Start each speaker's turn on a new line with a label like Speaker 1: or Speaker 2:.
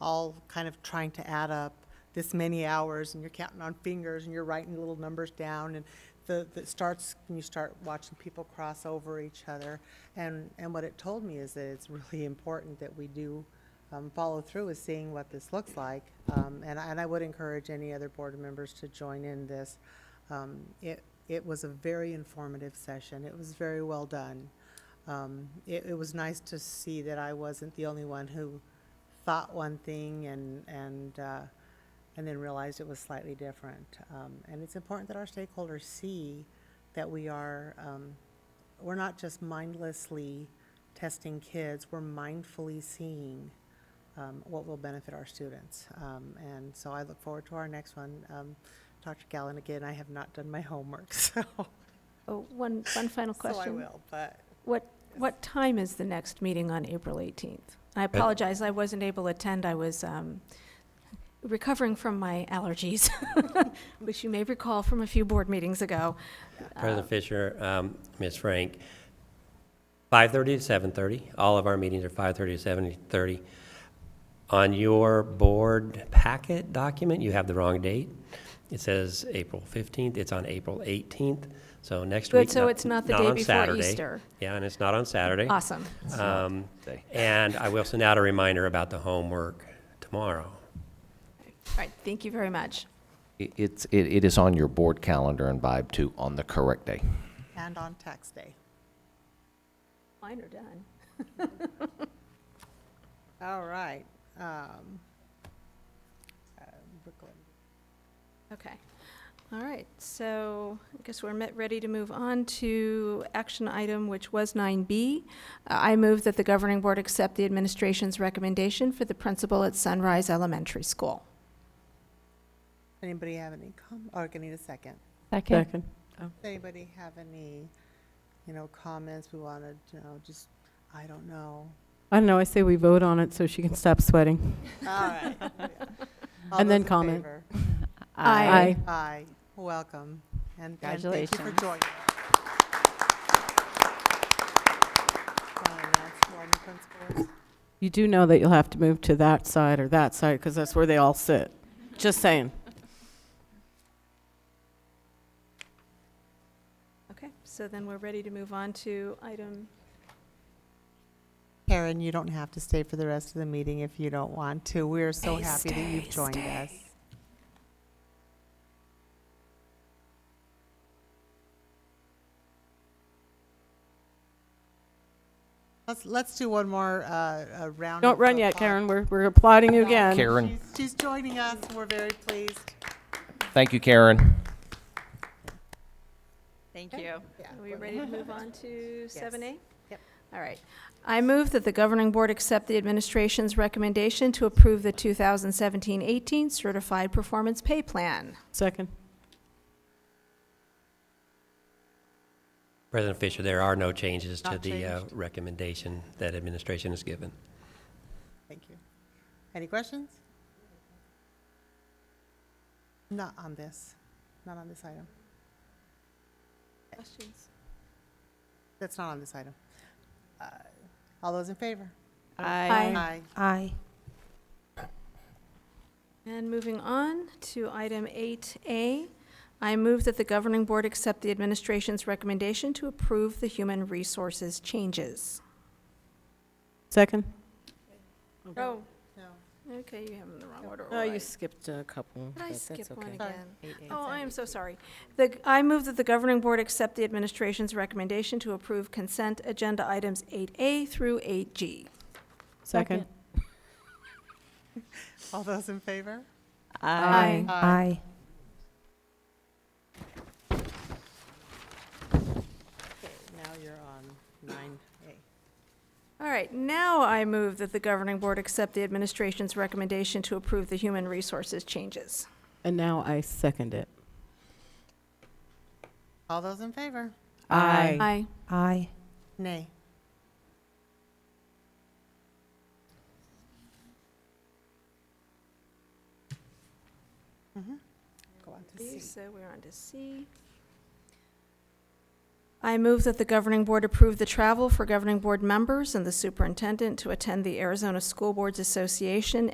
Speaker 1: all kind of trying to add up this many hours, and you're counting on fingers, and you're writing little numbers down, and the, the it starts, when you start watching people cross over each other. And, and what it told me is that it's really important that we do um, follow through with seeing what this looks like. Um, and, I- and I would encourage any other board members to join in this. Um, it, it was a very informative session. It was very well done. Um, it, it was nice to see that I wasn't the only one who thought one thing and, and, uh, and then realized it was slightly different. Um, and it's important that our stakeholders see that we are, um, we're not just mindlessly testing kids, we're mindfully seeing um, what will benefit our students. Um, and so I look forward to our next one. Um, Dr. Gallen, again, I have not done my homework, so,
Speaker 2: Oh, one, one final
Speaker 1: so I
Speaker 2: question.
Speaker 1: will, but.
Speaker 2: What, what time is the next meeting on April 18th? I apologize, I wasn't able to attend, I was um, recovering from my allergies, which you may recall from a few board meetings ago.
Speaker 3: President Fisher, um, Ms. Frank, 5:30 to 7:30, all of our meetings are 5:30 to 7:30. On your board packet document, you have the wrong date. It says April 15th, it's on April 18th, so next week.
Speaker 2: Good, so it's not the day
Speaker 3: on
Speaker 2: before
Speaker 3: Saturday.
Speaker 2: Easter.
Speaker 3: Yeah, and it's not on Saturday.
Speaker 2: Awesome.
Speaker 3: Um, And I will send out a reminder about the homework tomorrow.
Speaker 2: All right, thank you very much.
Speaker 4: It- It's, it, it is on your board calendar and Vibe too, on the correct day.
Speaker 1: And on tax day.
Speaker 2: Mine are done.
Speaker 1: All right. um, uh, Brooklyn.
Speaker 2: Okay. All right, so I guess we're met, ready to move on to action item, which was 9B. Uh, I move that the governing board accept the administration's recommendation for the principal at Sunrise Elementary School.
Speaker 1: Anybody have any com, or can I need a second?
Speaker 5: Second.
Speaker 1: Does anybody have any, you know, comments we wanted, you know, just, I don't know.
Speaker 5: I don't know, I say we vote on it so she can stop sweating.
Speaker 1: All right. All
Speaker 5: And then
Speaker 1: those in
Speaker 5: comment.
Speaker 1: favor?
Speaker 2: Aye.
Speaker 1: Aye, welcome. And and thank you
Speaker 5: Congratulations.
Speaker 1: for joining. Want to announce who our new principal is?
Speaker 5: You do know that you'll have to move to that side or that side, because that's where they all sit. Just saying.
Speaker 2: Okay, so then we're ready to move on to item,
Speaker 1: Karen, you don't have to stay for the rest of the meeting if you don't want to. We're so happy that you've joined us. Let's, let's do one more, uh, uh, round.
Speaker 5: Don't
Speaker 1: of
Speaker 5: run yet,
Speaker 1: applause.
Speaker 5: Karen, we're, we're applauding you again.
Speaker 4: Karen,
Speaker 1: She's joining us. We're very pleased.
Speaker 4: thank you, Karen.
Speaker 6: Thank you.
Speaker 2: are we ready to move on to 7A?
Speaker 1: Yep.
Speaker 2: All right. I move that the governing board accept the administration's recommendation to approve the 2017-18 Certified Performance Pay Plan.
Speaker 5: Second.
Speaker 3: President Fisher, there are no changes to
Speaker 1: Not
Speaker 3: the uh,
Speaker 1: changed.
Speaker 3: recommendation that administration has given.
Speaker 1: Thank you. Any questions? Not on this, not on this item.
Speaker 2: Questions?
Speaker 1: That's not on this item. Uh, All those in favor?
Speaker 2: Aye.
Speaker 1: Aye.
Speaker 2: And moving on to item 8A, I move that the governing board accept the administration's recommendation to approve the human resources changes.
Speaker 5: Second.
Speaker 2: Oh,
Speaker 1: No.
Speaker 2: okay, you have them in the wrong order.
Speaker 5: Oh,
Speaker 2: all
Speaker 5: you
Speaker 2: right.
Speaker 5: skipped a couple.
Speaker 2: Did I skip one
Speaker 1: Sorry.
Speaker 2: again?
Speaker 1: Eight
Speaker 2: Oh, I am so sorry. The, I move that the governing board accept the administration's recommendation to approve consent agenda items 8A through 8G.
Speaker 5: Second.
Speaker 1: All those in favor?
Speaker 2: Aye.
Speaker 1: Aye. Now you're on nine A.
Speaker 2: All right, now I move that the governing board accept the administration's recommendation to approve the human resources changes.
Speaker 5: And now I second it.
Speaker 1: All those in favor?
Speaker 5: Aye.
Speaker 2: Aye.
Speaker 7: Aye.
Speaker 1: Nay. Mhm. Go on to C.
Speaker 2: So we're on to C. I move that the governing board approve the travel for governing board members and the superintendent to attend the Arizona School Boards Association